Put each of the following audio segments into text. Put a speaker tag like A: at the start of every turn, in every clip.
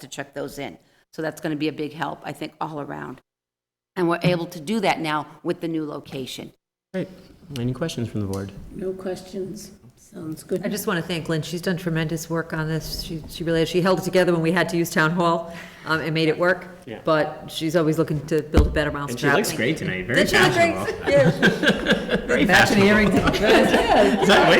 A: to check those in. So that's going to be a big help, I think, all around. And we're able to do that now with the new location.
B: Great. Any questions from the board?
C: No questions. Sounds good.
D: I just want to thank Lynn. She's done tremendous work on this. She, she really, she held it together when we had to use town hall um, and made it work.
B: Yeah.
D: But she's always looking to build a better mousetrap.
B: And she looks great tonight, very
D: Did she look great?
B: fashionable.
D: Yeah.
B: Very
D: Matching
B: fashionable.
D: earrings. Yeah.
B: Is that, wait,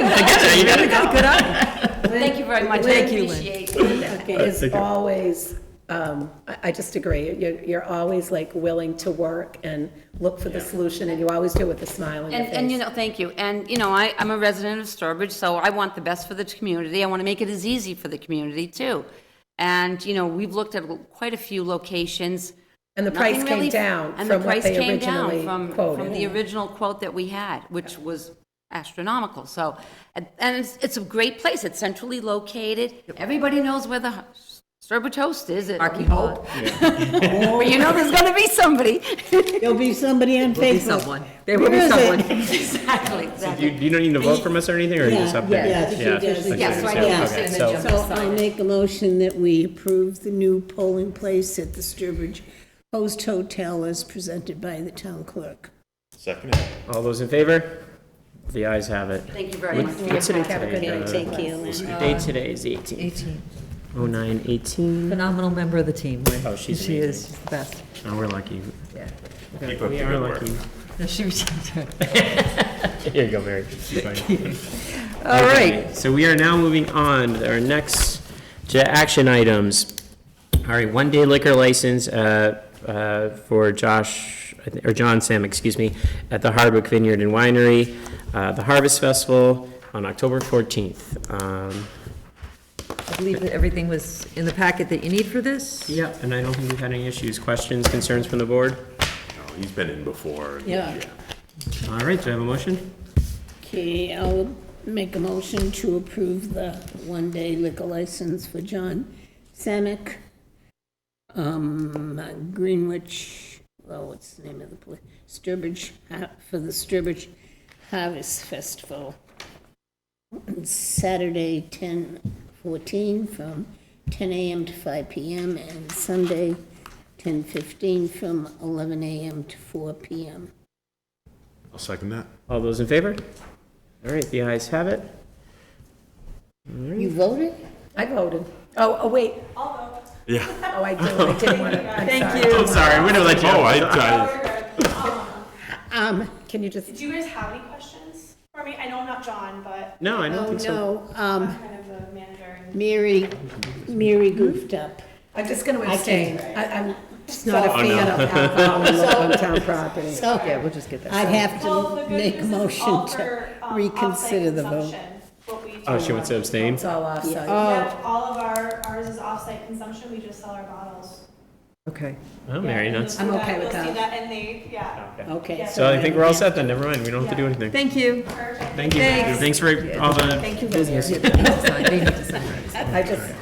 B: you got it.
D: Good eye.
A: Thank you very much. I
D: Thank you, Lynn.
A: appreciate
C: Okay, is always, um, I I just agree, you're you're always like willing to work and look for the solution, and you always do it with a smile on your
A: And, and you
C: face.
A: know, thank you. And, you know, I, I'm a resident of Sturbridge, so I want the best for the community. I want to make it as easy for the community too. And, you know, we've looked at quite a few locations.
C: And the price
A: Nothing
C: came
A: really-
C: down
A: and the
C: from what
A: price
C: they
A: came down
C: originally
A: from- From the
C: quoted.
A: original quote that we had, which was astronomical. So, and and it's, it's a great place. It's centrally located. Everybody knows where the Sturbridge Host is, at
D: Parking
A: Hope.
D: lot.
A: Where you know there's going to be somebody.
E: There'll be somebody on
D: Be
E: Facebook.
D: someone. There will be
E: Where is it?
D: someone.
A: Exactly,
B: Do you,
A: exactly.
B: do you don't need a vote from us or anything, or you just update?
E: yeah, I think you did.
B: okay,
E: Yeah,
A: so I
B: yeah,
A: think you
B: okay,
A: said
B: so-
A: the
E: So I make a motion that we approve the new polling place at the Sturbridge Post Hotel as presented by the town clerk.
F: Second it.
B: All those in favor? The ayes have it.
A: Thank you very much.
B: What's today?
C: Have a good
B: today?
C: night.
B: Uh,
C: Take care,
B: What day today is Oh, the 18th?
D: 18.
B: 0918.
D: Phenomenal member of the team, Lynn.
B: Oh, she's
D: She is,
B: amazing.
D: she's the best.
B: Oh, we're lucky.
D: Yeah.
F: Keep up
B: We
F: the
B: are
F: good work.
B: lucky.
D: No, she was-
B: Here you go, Mary.
D: All right.
B: Okay, So we are now moving on to our next to action items. All right, one-day liquor license uh, uh, for Josh, I thi- or John Sam, excuse me, at the Hardwick Vineyard and Winery, uh, the Harvest Festival on October 14th. Um,
D: I believe that everything was in the packet that you need for this.
B: Yeah, and I don't think we've had any issues, questions, concerns from the board?
F: No, Oh, He's been in before.
E: Yeah.
B: All right, do I have a motion?
E: Okay, I'll make a motion to approve the one-day liquor license for John Samick, um, Greenwich, well, what's the name of the place? Sturbridge, Ha- for the Sturbridge Harvest Festival. Saturday, 10:14 from 10 AM to 5 PM, and Sunday, 10:15 from 11 AM to 4 PM.
F: I'll second that.
B: All those in favor? All right, the ayes have it.
E: You voted?
C: I voted. Oh, oh, wait.
F: Yeah.
C: Oh, I did, I didn't want to, I'm sorry.
B: I'm sorry, I'm gonna let you.
F: Oh, I, I,
E: Um,
C: Can you just,
G: Did you guys have any questions for me? I know I'm not John, but
B: No, I don't
E: Oh,
B: think so.
E: no, um,
G: I'm kind of the manager and
E: Mary, Mary goofed up.
C: I'm just going to
E: can't
C: abstain.
E: drive.
C: I- I'm Oh, just not a fan of alcohol and local on town property.
E: So
D: Oh, Yeah, we'll just get that.
E: I'd have
G: Well, the
E: to
G: good
E: make a
G: news is it's all
E: motion
G: for,
E: to
G: um,
E: reconsider
G: off-site
E: the vote.
G: consumption, what we do.
B: Oh, she wants to abstain?
C: It's all offsite.
E: Oh.
G: Yeah, all of our, ours is off-site consumption, we just sell our bottles.
D: Okay.
B: Oh, Mary,
G: You'll
B: that's.
G: see
C: I'm okay with
G: You'll
C: that.
G: see that in the, yeah.
E: Okay.
B: So I think we're all set then, never mind, we don't have to do anything.
D: Thank you.
G: Perfect.
B: Thank you.
D: Thanks.
B: Thanks for all the,
C: Thank you, Business.
D: They need to sign it.
C: I just,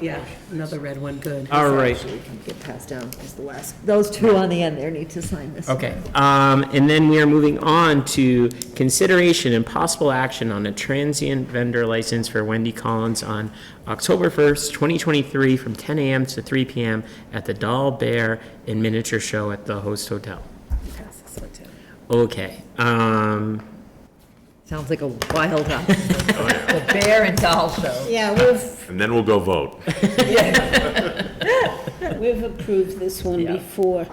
C: yeah, another red one, good.
B: all right,
D: Get passed down as the last. Those two on the end there need to sign this.
B: okay. Um, and then we are moving on to consideration and possible action on a transient vendor license for Wendy Collins on October first, twenty twenty-three, from ten AM to three PM at the Doll Bear and Miniature Show at the Host Hotel. Okay, um,
D: Sounds like a wild hunt. The bear and doll show.
E: Yeah, we've,
F: and then we'll go vote.
E: we've approved this one
B: Yeah.
E: before.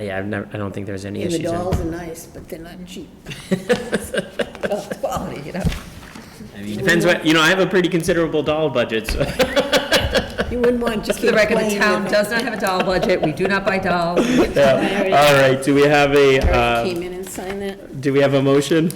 B: yeah, I've never, I don't think there's any
E: And the
B: issues. in-
E: dolls are nice, but they're not cheap.
D: Quality, you know.
B: Depends what, you know, I have a pretty considerable doll budget, so.
E: You wouldn't want to
D: Just for the
E: keep
D: record, the
E: playing
D: town
E: with it.
D: does not have a doll budget. We do not buy dolls.
B: All right, do we have a,
E: Eric
B: uh,
E: came in and signed that.
B: do we have a motion?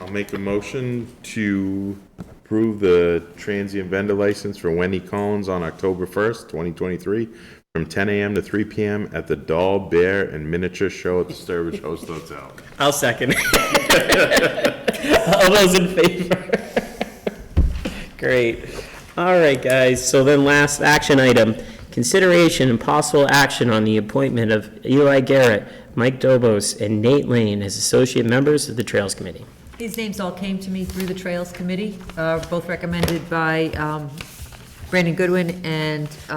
F: I'll make a motion to approve the transient vendor license for Wendy Collins on October 1st, 2023, from 10 a.m. to 3 p.m. at the Doll Bear and Miniature Show at the Sturbridge Host Hotel.
B: I'll second. All those in favor? Great. All right, guys, so then last action item, consideration and possible action on the appointment of Eli Garrett, Mike Dobos, and Nate Lane as associate members of the Trails Committee.
D: These names all came to me through the Trails Committee, uh, both recommended by um, Brandon Goodwin and